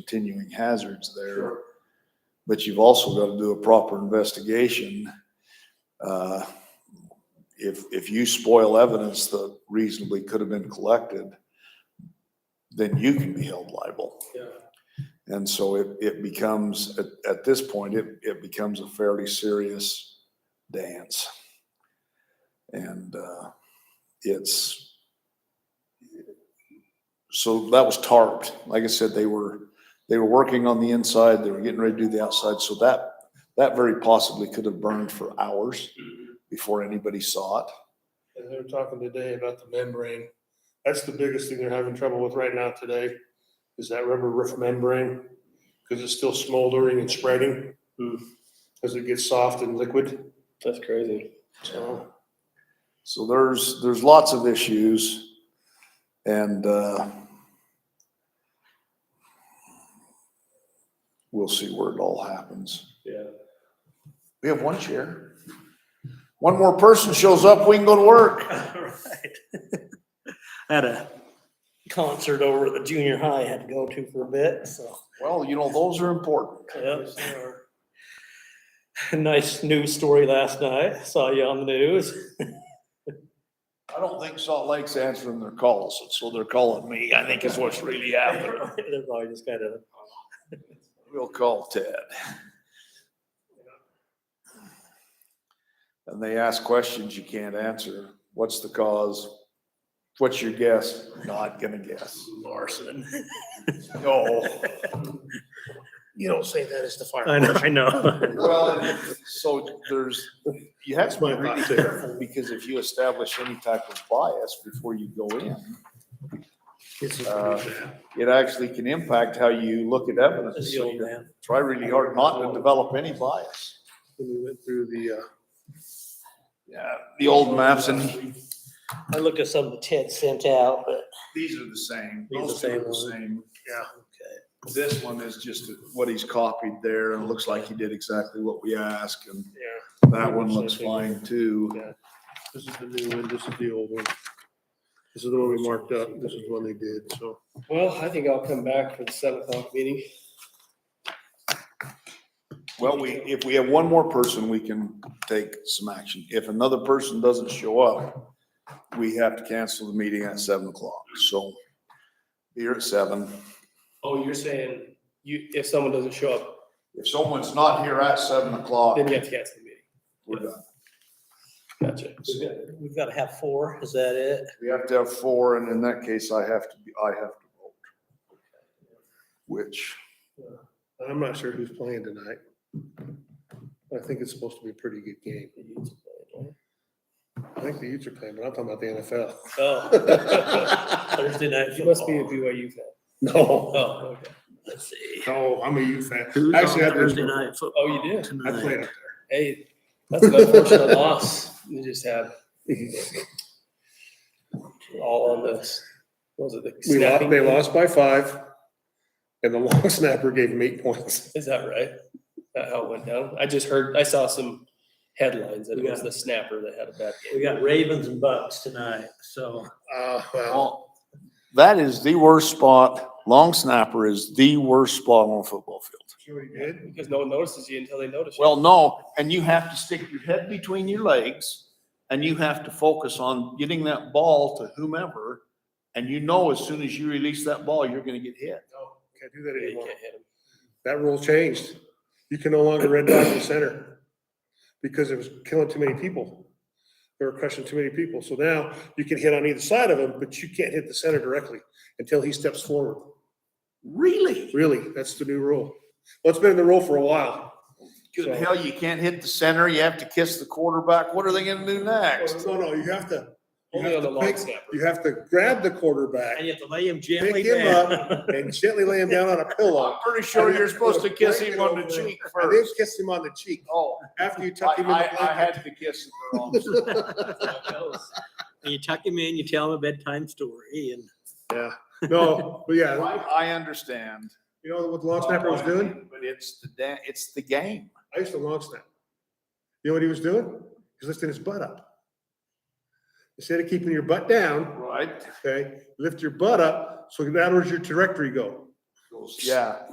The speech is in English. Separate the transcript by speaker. Speaker 1: continuing hazards there. But you've also got to do a proper investigation. Uh, If, if you spoil evidence that reasonably could have been collected, then you can be held liable.
Speaker 2: Yeah.
Speaker 1: And so it, it becomes, at, at this point, it, it becomes a fairly serious dance. And, uh, it's, so that was tarped. Like I said, they were, they were working on the inside, they were getting ready to do the outside, so that, that very possibly could have burned for hours before anybody saw it.
Speaker 2: And they were talking today about the membrane. That's the biggest thing they're having trouble with right now today, is that rubber roof membrane, because it's still smoldering and spreading
Speaker 3: Hmm.
Speaker 2: as it gets soft and liquid,
Speaker 3: That's crazy.
Speaker 2: so.
Speaker 1: So there's, there's lots of issues and, uh, we'll see where it all happens.
Speaker 3: Yeah.
Speaker 1: We have one chair. One more person shows up, we can go to work.
Speaker 4: Right. I had a concert over at the junior high I had to go to for a bit, so.
Speaker 1: Well, you know, those are important.
Speaker 4: yep. Nice news story last night. Saw you on the news.
Speaker 1: I don't think Salt Lake's answering their calls, so they're calling me, I think is what's really happening.
Speaker 4: They're probably just kind of,
Speaker 1: We'll call Ted. And they ask questions you can't answer. What's the cause? What's your guess? Not gonna guess.
Speaker 4: Larson.
Speaker 1: No.
Speaker 2: You don't say that as the fire.
Speaker 4: I know, I know.
Speaker 1: Well, and so there's, you have to be
Speaker 2: That's my
Speaker 1: really
Speaker 2: thought, too.
Speaker 1: careful because if you establish any type of bias before you go in, uh, it actually can impact how you look at evidence.
Speaker 4: This
Speaker 1: So
Speaker 4: old
Speaker 1: you
Speaker 4: man.
Speaker 1: Try really hard not to develop any bias.
Speaker 2: When we went through the, uh,
Speaker 1: Yeah, the old maps and
Speaker 4: I looked at some that Ted sent out, but.
Speaker 1: These are the same.
Speaker 4: These are
Speaker 1: Those
Speaker 4: the
Speaker 1: two
Speaker 4: same
Speaker 1: are the
Speaker 4: one.
Speaker 1: same.
Speaker 4: Okay.
Speaker 1: This one is just what he's copied there and it looks like he did exactly what we asked and
Speaker 2: yeah,
Speaker 1: that one looks fine too.
Speaker 2: this is the new one, this is the old one. This is the one we marked up, this is the one they did, so.
Speaker 3: Well, I think I'll come back for the seven o'clock meeting.
Speaker 1: Well, we, if we have one more person, we can take some action. If another person doesn't show up, we have to cancel the meeting at seven o'clock. So here at seven.
Speaker 3: Oh, you're saying you, if someone doesn't show up,
Speaker 1: If someone's not here at seven o'clock,
Speaker 3: then you have to cancel the meeting.
Speaker 1: we're done.
Speaker 3: Gotcha.
Speaker 4: We've got to have four. Is that it?
Speaker 1: We have to have four and in that case, I have to, be I have to vote. Which.
Speaker 2: I'm not sure who's playing tonight. I think it's supposed to be a pretty good game. I think the Utes are playing, but I'm talking about the NFL.
Speaker 4: Oh. Thursday night.
Speaker 3: You must be a
Speaker 4: football.
Speaker 3: BYU fan.
Speaker 2: No.
Speaker 3: Oh, okay.
Speaker 4: Let's see.
Speaker 2: No, Oh, I'm a Ute fan.
Speaker 4: Who's on
Speaker 2: Actually, I played-
Speaker 4: Thursday night football?
Speaker 3: Oh, you do?
Speaker 2: I played
Speaker 4: Tonight.
Speaker 2: up
Speaker 3: Hey, that's an unfortunate loss you just had. All on this. Was it the
Speaker 2: there. We lost,
Speaker 3: snapping?
Speaker 2: they lost by five, and the long snapper gave them eight points.
Speaker 3: Is that right? That how it went down? I just heard, I saw some headlines that it was
Speaker 4: Yeah.
Speaker 3: the snapper that had a bad game.
Speaker 4: We got Ravens and Bucks tonight, so.
Speaker 2: Uh,
Speaker 3: Oh,
Speaker 2: well,
Speaker 1: Well, that is the worst spot. Long snapper is the worst spot on a football field.
Speaker 3: Because no one notices you until they notice you.
Speaker 1: Well, no, and you have to stick your head between your legs and you have to focus on getting that ball to whomever. And you know, as soon as you release that ball, you're gonna get hit.
Speaker 2: no, can't do that
Speaker 3: Yeah, you
Speaker 2: anymore.
Speaker 3: can't hit 'em.
Speaker 2: That rule changed. You can no longer red dot in the center because it was killing too many people. They were crushing too many people. So now you can hit on either side of him, but you can't hit the center directly until he steps forward.
Speaker 1: Really?
Speaker 2: Really, that's the new rule. Well, it's been in the rule for a while.
Speaker 1: Good in hell, you can't hit the center. You have to kiss the quarterback. What are they gonna do next?
Speaker 2: No, no, you have to, you
Speaker 3: Only on
Speaker 2: have
Speaker 3: the
Speaker 2: to
Speaker 3: long
Speaker 2: pick,
Speaker 3: snapper.
Speaker 2: you have to grab the quarterback
Speaker 4: And you have to lay him gently
Speaker 2: Pick him
Speaker 4: down.
Speaker 2: up. and gently lay him down on a pillow.
Speaker 1: Pretty sure you're supposed to kiss him on the cheek
Speaker 2: I did
Speaker 1: first.
Speaker 2: kiss him on the cheek
Speaker 1: Oh,
Speaker 2: after you tuck him in the
Speaker 1: I, I, I
Speaker 2: blanket.
Speaker 1: had to kiss him. wrong.
Speaker 4: And you tuck him in, you tell him a bedtime story and.
Speaker 2: Yeah, no, but yeah,
Speaker 1: I understand.
Speaker 2: you know what the long snapper was doing?
Speaker 1: But it's the, da- it's the game.
Speaker 2: I used to long snap. You know what he was doing? He was lifting his butt up. Instead of keeping your butt down,
Speaker 1: Right.
Speaker 2: okay, lift your butt up, so that where's your trajectory go?
Speaker 1: goes, yeah,